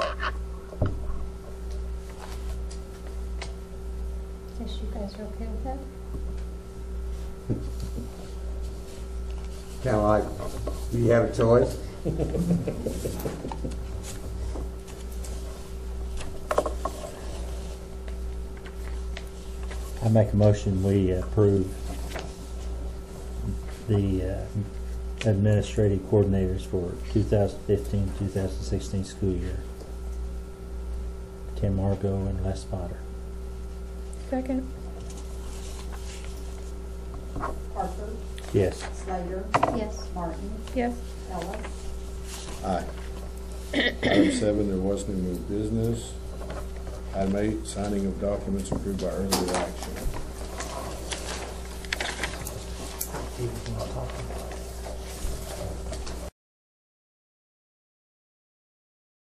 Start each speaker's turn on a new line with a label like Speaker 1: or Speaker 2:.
Speaker 1: guys are okay with that?
Speaker 2: Kind of like, we have a choice.
Speaker 3: I make a motion, we approve the uh, administrative coordinators for 2015, 2016 school year. Tim Margot and Les Potter.
Speaker 4: Second.
Speaker 5: Parker,
Speaker 3: Yes.
Speaker 5: Slater,
Speaker 1: Yes.
Speaker 5: Martin,
Speaker 4: Yes.
Speaker 5: Ellis,
Speaker 6: Aye. Item seven, there was no new business. Item eight, signing of documents approved by earlier action.